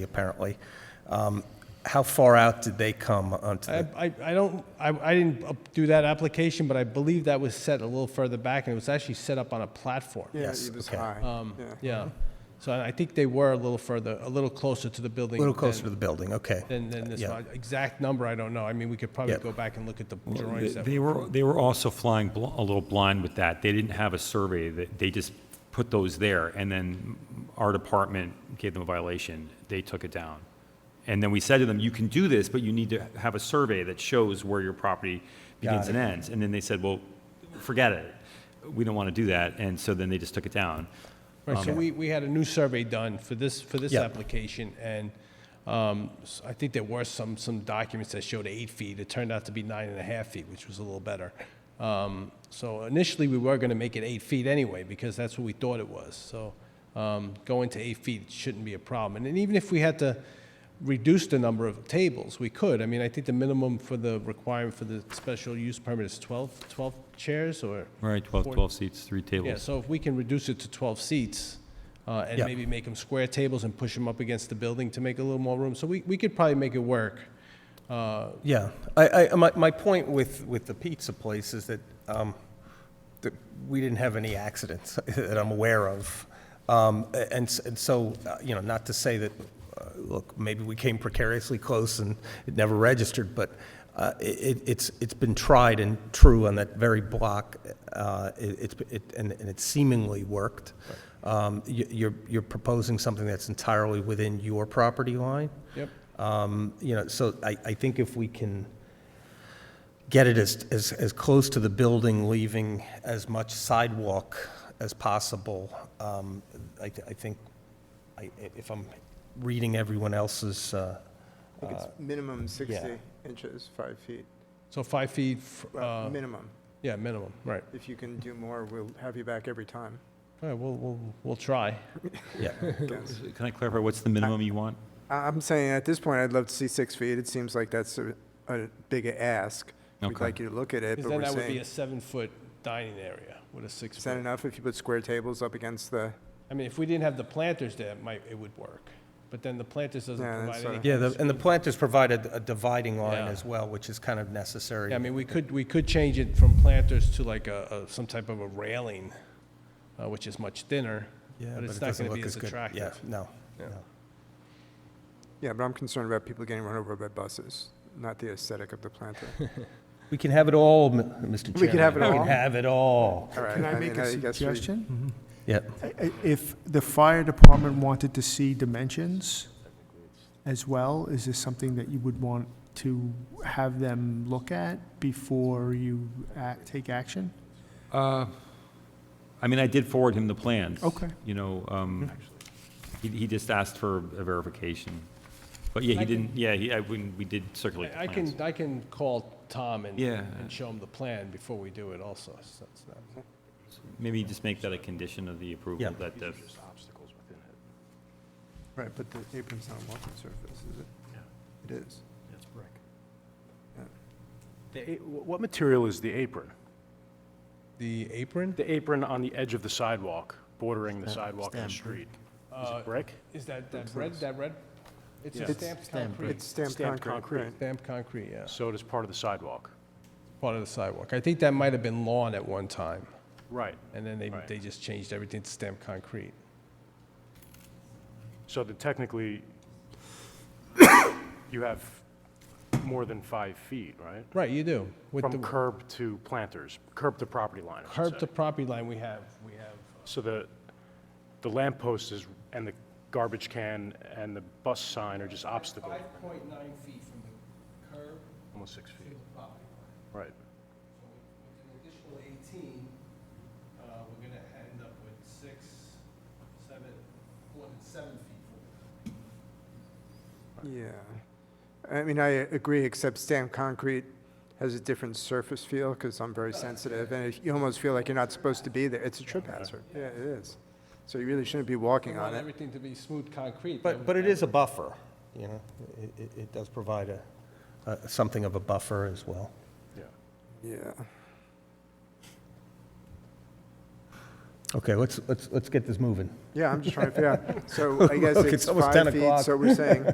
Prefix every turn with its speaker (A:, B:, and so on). A: apparently. Um, How far out did they come onto
B: I,
A: the,
B: I I don't, I, I didn't up- do that application, but I believe that was set a little further back, and it was actually set up on a platform.
C: Yeah,
A: Yes,
C: it was
A: okay.
C: high.
B: Um,
C: Yeah.
B: Yeah, so I I think they were a little further, a little closer to the
A: a
B: building.
A: little
B: than-
A: closer to the building, okay.
B: Than, than this,
A: Yeah.
B: one. exact number, I don't know, I mean, we could probably
A: Yeah.
B: go back and look at the
D: They-
B: drawings. that-
D: They were, they were also flying bl- a little blind with that. They didn't have a survey, that- they just put those there, and then our department gave them a violation. They took it down. And then we said to them, you can do this, but you need to have a survey that shows where your property begins and ends. And then they said, well, forget it, we don't want to do that, and so then they just took it down.
B: Right, so we, we had a new survey done for this, for this
A: Yeah.
B: application, and um, s- I think there were some, some documents that showed eight feet. It turned out to be nine and a half feet, which was a little better. Um, So initially, we were gonna make it eight feet anyway, because that's what we thought it was. So um, going to eight feet shouldn't be a problem. And then even if we had to reduce the number of tables, we could. I mean, I think the minimum for the requirement for the special use permit is 12, 12 chairs, or?
D: Right, 12, 12 seats, three
B: Yeah,
D: tables.
B: so if we can reduce it to 12 seats, uh, and
A: Yeah.
B: maybe make them square tables and push them up against the building to make a little more room, so we, we could probably make it work. Uh,
A: Yeah, I, I, my, my point with, with the pizza place is that, um, that we didn't have any accidents that I'm aware of. Um, a- and, s- and so, uh, you know, not to say that, uh, look, maybe we came precariously close and it never registered, but, uh, i- it, it's, it's been tried and true on that very block, uh, it, it's, it, and, and it seemingly worked. Um, you, you're, you're proposing something that's entirely within your property line?
B: Yep.
A: Um, You know, so I, I think if we can get it as, as, as close to the building, leaving as much sidewalk as possible, um, I, th- I think, I, if I'm reading everyone else's, uh,
C: I think it's minimum 60 inches, five feet,
B: So five feet, f-
C: Well,
B: uh,
C: minimum.
B: yeah, minimum, right.
C: If you can do more, we'll have you back every time.
B: All right, we'll, we'll, we'll try.
A: yeah,
C: Yes.
D: Can I clarify, what's the minimum you want?
C: I- I'm saying, at this point, I'd love to see six feet. It seems like that's a, a big a ask. We'd
D: Okay.
C: like you to look at it,
B: Because
C: but
B: then
C: we're
B: that would be
C: saying,
B: a seven-foot dining area with a
C: is that
B: six-foot.
C: enough if you put square tables up against the,
B: I mean, if we didn't have the planters there, it might, it would work. But then the planters doesn't
C: Yeah,
B: provide
C: that's
B: any.
C: sort
A: yeah, the- and the planters provided a dividing line
B: Yeah.
A: as well, which is kind of necessary.
B: Yeah, I mean, we could, we could change it from planters to like a, a- some type of a railing, uh, which is much thinner,
A: Yeah,
B: but it's
A: it
B: not
A: doesn't
B: going to be
A: look
B: as
A: good. Yeah,
B: attractive.
A: no,
B: Yeah.
A: no.
C: yeah, but I'm concerned about people getting run over by buses, not the aesthetic of the planter.
A: We can have it all, M- Mr. Chairman.
C: We can have it
A: We
C: all?
A: can have it all.
C: All right,
E: Can I
C: mean,
E: make a
C: guess we- Mm-hmm.
E: suggestion?
A: Yeah,
E: I- I- If the fire department wanted to see dimensions as well, is this something that you would want to have them look at before you act, take action?
D: Uh, I mean, I did forward him the plans.
E: Okay.
D: You know, um, he, he just asked for a verification. But yeah, he didn't, yeah, he, I, when, we did circulate
B: I I
D: the
B: can,
D: plans.
B: I can call Tom and,
D: Yeah.
B: and show him the plan before we do it also. so it's not-
D: Maybe just make that a condition of the
A: Yeah.
D: approval that the,
C: Right, but the apron's not a walking surface, is it? Yeah. It is.
F: The a- wh- What material is the apron?
B: The apron,
F: The apron on the edge of the sidewalk, bordering the sidewalk and the street. Is
B: Uh,
F: it brick?
B: is that, that red, that red? It's
F: Yeah.
B: a
F: It's
B: stamped concrete.
C: It's stamped
F: Stamped
C: concrete,
F: concrete.
C: right?
B: Stamped concrete, yeah,
F: So does part of the sidewalk.
B: part of the sidewalk. I think that might have been lawn at one time,
F: Right.
B: and then they,
F: Right.
B: they just changed everything to stamped concrete.
F: So that technically, you have more than five feet, right?
B: Right, you do. With the
F: From curb to planters, curb to property line, I should
B: Curb
F: say.
B: to property line, we have, we have
F: So the, the lamp post is, and the garbage can and the bus sign are just obstacle,
B: Five point nine feet from the curb
F: almost six
B: to
F: feet.
B: the property line.
F: Right.
B: So with with an additional eighteen, uh, we're gonna end up with six, seven, more than seven feet from the curb.
C: Yeah. I mean, I agree, except stamped concrete has a different surface feel, because I'm very sensitive, and it- you almost feel like you're not supposed to be there. It's a trip hazard. Yeah, it is. So you really shouldn't be walking
B: We
C: on
B: want
C: it.
B: everything to be smooth concrete.
A: But, but it is a buffer, you know, it, it- it does provide a, a- something of a buffer as well.
F: Yeah.
C: Yeah.
A: Okay, let's, let's, let's get this moving.
C: Yeah, I'm just trying to figure out. So I guess
A: Look,
C: it's
A: it's almost
C: five
A: 10
C: feet,
A: o'clock.
C: so we're saying